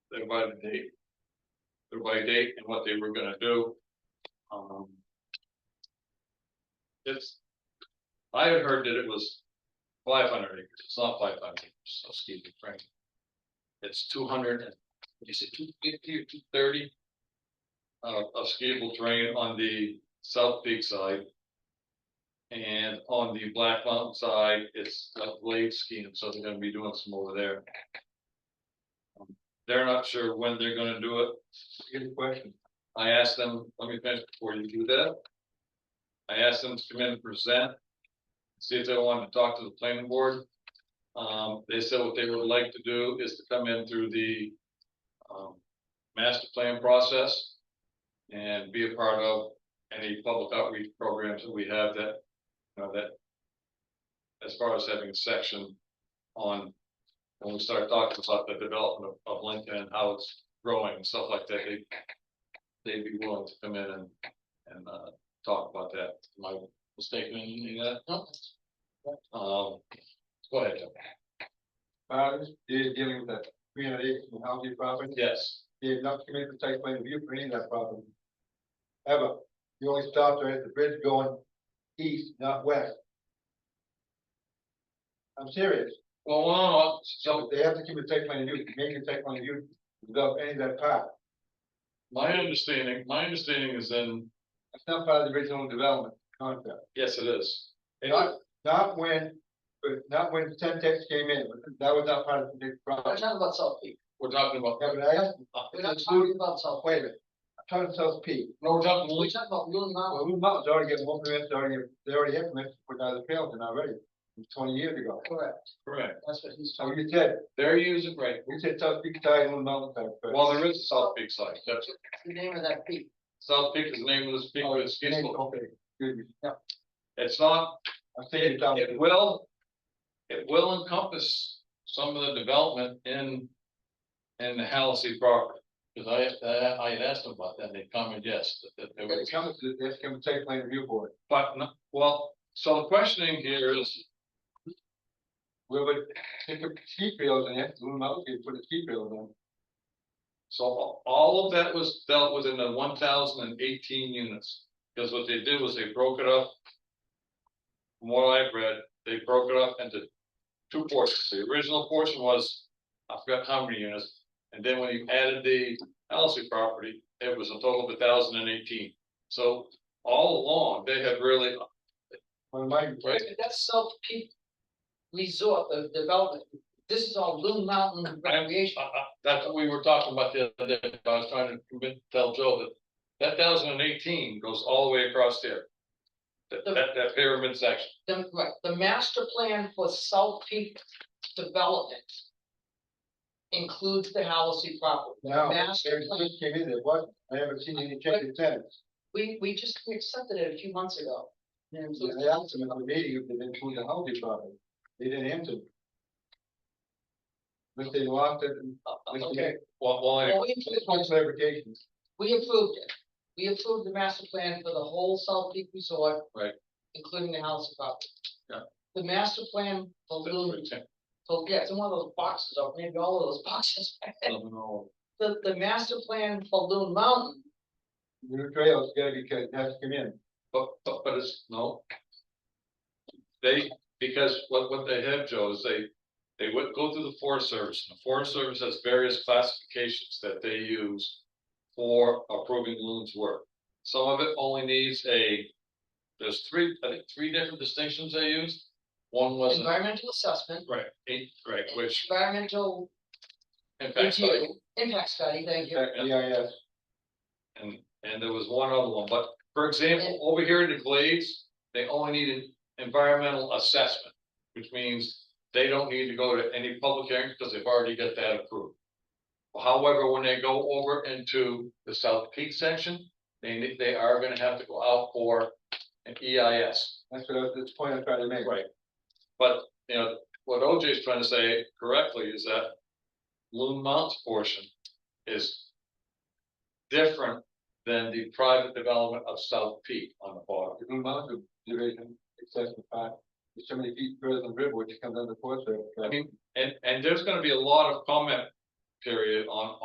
they're by the date. They're by date and what they were gonna do. Um. It's. I had heard that it was five hundred acres, it's not five hundred acres, excuse me, Frank. It's two hundred and, you said two fifty or two thirty? Uh, of skiable terrain on the south peak side. And on the Black Mountain side, it's a blade scheme, so they're gonna be doing some over there. They're not sure when they're gonna do it. Good question. I asked them, let me finish before you do that. I asked them to come in and present. See if they wanted to talk to the planning board. Um, they said what they would like to do is to come in through the. Um, master plan process. And be a part of any public outreach programs that we have that, you know, that. As far as having a section on, when we start talking about the development of, of Lincoln and how it's growing and stuff like that, they. They'd be willing to come in and, and, uh, talk about that. Am I mistaken in any of that? Um, go ahead, Joe. Uh, is dealing with that three hundred acres of housing property. Yes, They have not committed to site plan review for any of that property. Ever. You only stopped there at the bridge going east, not west. I'm serious. well, well, no, so So they have to commit to site plan review, make a site plan review, develop any of that part. my understanding, my understanding is in, That's not part of the original development concept. yes, it is. Not, not when, but not when Centex came in, that was not part of the big We're project. talking about South Peak, We're talking about, Yeah, but I asked, we're not talking about South, wait a minute, I'm talking to South Peak. no, we're talking, we're Lee- talking about Moon Mountain, Well, Blue Mountain's already getting more permits, they already, they already have permits for the trails in already, from twenty years ago. correct, correct, that's what he's So talking, you said, they're using, right, you said South Peak side, Blue Mountain side. first. well, there is a South Peak side, that's, about. the name of that peak, South Peak is the name of this peak, Oh, but it's, Okay, Skizzle. okay, excuse me, it's not I'm thinking down, It will, it will encompass some of the development in, in the Halsey property. Cause I, I, I had asked them about that, and they commented, yes, that, that they when would, it comes to, this coming to site plan review board, but, no- well, so the questioning here is, we would pick up ski trails and have Blue Mountain, could put a ski trail in. so all of that was dealt with in the one thousand and eighteen units. Cause what they did was they broke it up. From what I've read, they broke it up into two portions. The original portion was, I forgot how many units. And then when you added the Allison property, it was a total of thousand and eighteen. So all along, they have really, One of my, Right. But that's South Peak Resort, the development, this is all Loon Mountain uh, recreation. uh, that's what we were talking about the other day. I was trying to convince, tell Joe that that thousand and eighteen goes all the way across there. That, that, that pyramid section. The, right, the master plan for South Peak development includes the Halsey property. The now, master they plan- just came in there, what, I haven't seen any changes since. We, we just accepted it a few months ago. And so- I asked them at the meeting if they didn't include the housing property, they didn't answer. But they lost it, and- Okay, Well, well, anyway, well, we I just want clarification. We approved it. We approved the master plan for the whole Salt Peak Resort. Right. Including the house property. Yeah. The master plan for that's Loon, pretty simple. for, yeah, it's in one of those boxes, or maybe all of those boxes. The, the master plan for Loon Mountain, New trails gotta be, cut, has to come in. But, Oh, but, but it's, no. They, because what, what they have, Joe, is they, they would go through the Forest Service, and the Forest Service has various classifications that they use. For approving loons work, some of it only needs a, there's three, I think, three different distinctions they used. One was, a- environmental assessment. right, eight, right, which Environmental impacts, like, review, impact study, thank you. Fact, Yeah, yeah, and, and there was one other one, but for example, over here in the Glades, they only need an environmental assessment. Which means they don't need to go to any public hearings because they've already got that approved. However, when they go over into the South Peak section, they, ne- they are gonna have to go out for an E EIS. that's what, I was- that's the point I'm trying to make. Right. But, you know, what OJ is trying to say correctly is that Loon Mountain portion is different than the private development of South Peak on the bottom. The Blue Mountain Division, access to five, there's so many feet further than Riverwood, it comes under the forest. Service. I mean, and, and there's gonna be a lot of comment period on